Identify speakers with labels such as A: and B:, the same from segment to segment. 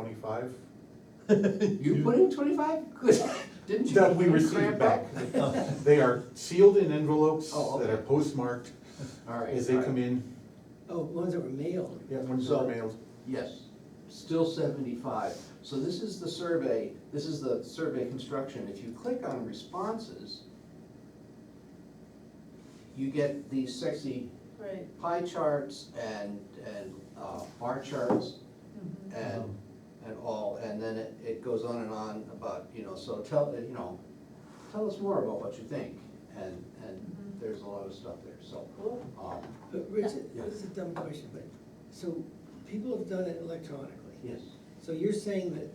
A: twenty-five
B: You put in twenty-five? Good, didn't you?
A: that we
B: You
A: received
B: cramp
A: back.
B: up?
A: They are sealed in envelopes
B: Oh,
A: that are
B: okay.
A: postmarked
B: All right.
A: as they
B: all right.
A: come in,
C: Oh, ones that were mailed.
A: yeah, when they're
B: So-
A: mailed.
B: Yes, still seventy-five. So this is the survey, this is the survey construction. If you click on responses, you get these sexy
D: Right.
B: pie charts and, and uh, bar charts and, and all, and then it, it goes on and on about, you know, so tell, uh, you know, tell us more about what you think, and, and
D: Mhm.
B: there's a lot of stuff there, so.
D: Cool.
B: um,
C: But Richard,
B: Yeah.
C: this is a dumb question, but, so people have done it electronically.
B: Yes,
C: So you're saying that,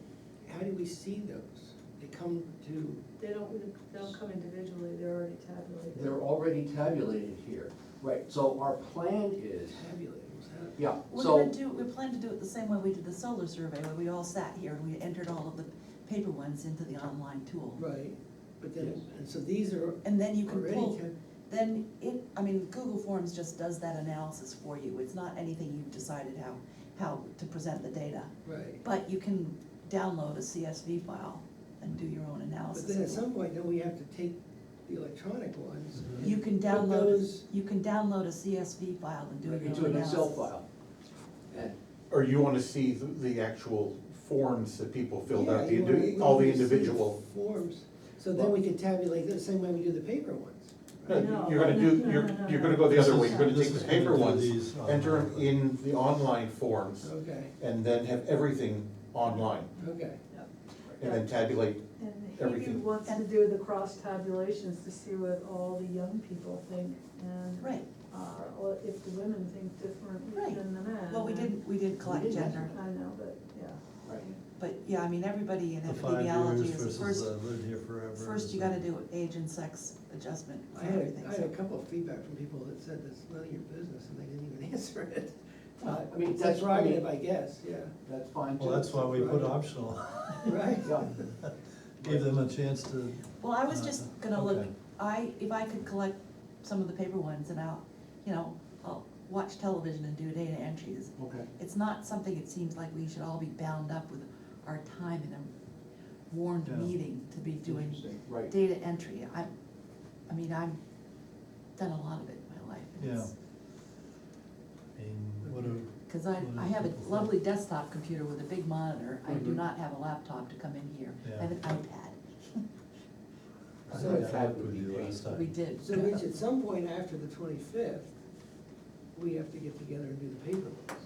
C: how do we see those? They come to,
D: They don't, they don't come individually, they're already tabulated.
B: they're already tabulated here, right, so our plan is,
C: tabulators, how?
B: yeah,
E: We're gonna
B: so,
E: do, we plan to do it the same way we did the solar survey, where we all sat here and we entered all of the paper ones into the online tool.
C: Right, but
B: Yes.
C: then, and so these are
E: And then you can
C: already,
E: pull,
C: tab-
E: then it, I mean, Google Forms just does that analysis for you, it's not anything you've decided how, how to present the data.
C: right.
E: But you can download a CSV file and do your own
C: But then at
E: analysis.
C: some point, then we have to take the electronic ones. and
E: Mm-hmm. You can
C: put
E: download,
C: those-
E: you can download a CSV file and do your own analysis.
B: into an Excel file. And,
A: Or you wanna see the, the actual forms that people filled
C: Yeah,
A: out, the,
C: you wanna-
A: indi-
C: you
A: all the
C: wanna see
A: individual.
C: Forms, so then we can tabulate the same way we do the paper ones.
A: No,
D: No,
A: Uh, You're gonna do,
D: no,
A: you're,
D: no, no,
A: you're
D: no.
A: gonna go the other
D: This
A: way,
D: is-
A: you're gonna
F: this
A: take the
F: is gonna
A: paper
F: do
A: ones,
F: these
A: enter them
F: online.
A: in the online forms,
C: Okay,
A: and then have everything online,
C: okay.
D: Yep.
A: and then tabulate
D: And he
A: Everything.
D: wants to do the cross tabulations to see what all the young people think and.
E: Right,
D: Uh, or if the women think differently
E: Right.
D: than the men.
E: well, we
D: and-
E: didn't, we did collect
B: We didn't.
E: gender,
D: I know, but, yeah.
B: right,
E: but yeah, I mean, everybody in
F: The five years
E: epidemiology is
F: versus
E: first,
F: I lived here forever.
E: First, you gotta do age and sex adjustment
C: I
E: for
C: had, a- I had a
E: everything.
C: couple of feedback from people that said that's none of your business, and they didn't even answer it.
B: Well, I mean,
C: It's
B: that's-
C: a prerogative, I guess, yeah,
B: that's fine too.
F: Well, that's why we put optional,
C: right?
B: Yeah,
F: gave them a chance to,
E: Well, I was just gonna look,
F: Okay.
E: I, if I could collect some of the paper ones and I'll, you know, I'll watch television and do data entries.
B: okay,
E: It's not something it seems like we should all be bound up with our time in a warned
F: Yeah.
E: meeting to be doing
B: interesting, right.
E: data entry. I, I mean, I've done a lot of it in my life. and it's-
F: I mean, what do,
E: Cause I,
F: Well,
E: I have
F: people
E: a
F: think-
E: lovely desktop computer with a big monitor, I do
C: Mm-hmm.
B: Mhm.
E: not have a laptop to come in here, I have an iPad.
B: I
C: So-
B: think that would be
F: we do
B: painful.
F: last time?
E: We did.
C: So Rich, at some point after the twenty-fifth, we have to get together and do the paper ones.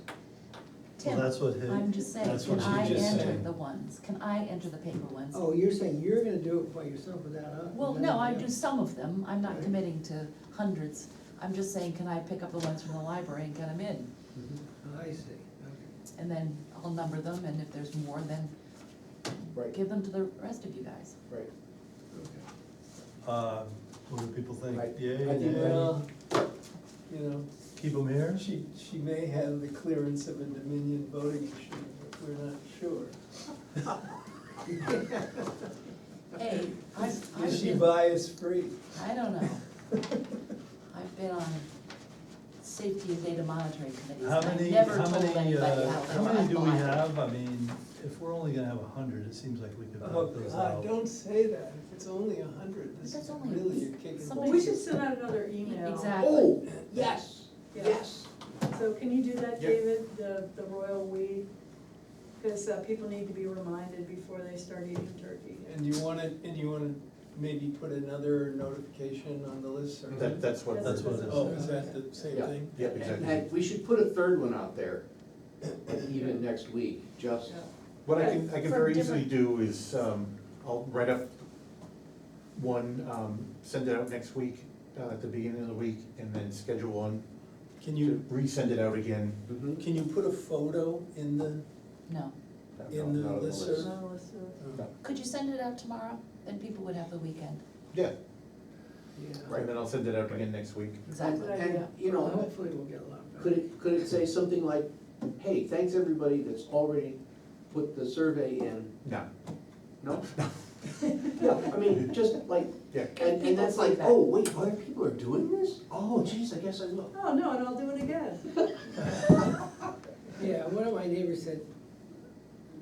F: Well,
E: Tim,
F: that's what hit.
E: I'm just saying,
F: that's what
E: can I
F: she just
E: enter
F: said.
E: the ones, can I enter the paper ones?
C: Oh, you're saying you're gonna do it by yourself without us?
E: Well,
C: without
E: no, I
C: anybody
E: do
C: else?
E: some of them, I'm not
C: Right.
E: committing to hundreds, I'm just saying, can I pick up the ones from the library and get them in?
C: Oh, I see, okay.
E: And then I'll number them, and if there's more, then
B: Right,
E: give them to the rest of you guys.
B: right.
C: okay.
F: Uh, what do people think?
G: Right.
F: Yay,
G: I think,
F: nay?
G: well, you know,
F: Keep them here?
G: she, she may have the clearance of a Dominion voting machine, but we're not sure.
E: Hey, I've, I've
G: Is she
E: been-
G: bias-free?
E: I don't know. I've been on safety and data monitoring committees,
F: How
E: and I
F: many,
E: never
F: how
E: told
F: many,
E: anybody
F: uh,
E: how
F: how many do we
E: they were
F: have? I mean, if we're only gonna have a hundred, it seems like we could
G: Oh,
F: knock those out.
G: God, don't say that, if it's only a hundred, this
E: But that's
G: is
E: only-
G: really a kick in the
E: somebody-
D: We should send out another email.
E: E- Exactly.
B: Oh, yes,
D: Yeah.
B: yes.
D: So can you do that,
A: Yeah.
D: David, the, the royal we? Because people need to be reminded before they start eating turkey.
G: And you wanna, and you wanna maybe put another notification on the listserv?
A: That, that's what.
F: That's what it is.
G: Oh, is that the same
B: Yeah.
G: thing?
A: Yep,
B: And-
A: exactly.
B: And we should put a third one out there, even next week, just,
A: What I can, I can
D: From
A: very easily do is, um, I'll write up one, um, send it out next week, uh, at the beginning of the week, and then schedule one,
G: Can
A: to
G: you,
A: resend it out again.
B: mm-hmm.
G: can you put a photo in the,
E: No.
G: In the
A: Not on
G: listserv?
A: list.
D: No, let's do it.
E: Could you send it out tomorrow? Then people would have the weekend.
A: Yeah,
C: Yeah.
A: and then I'll send it out again next week.
E: Exactly.
D: Good
B: and,
D: idea.
B: you
C: Well,
B: know,
C: Hopefully we'll get a lot better.
B: could it, could it say something like, hey, thanks everybody that's already put the survey in,
A: No,
B: no? Yeah, I mean, just like,
A: yeah,
B: and, and that's like,
E: People see that.
B: oh, wait, other people are doing this? Oh, geez, I guess I will.
D: Oh, no, and I'll do it again.
C: Yeah, one of my neighbors said,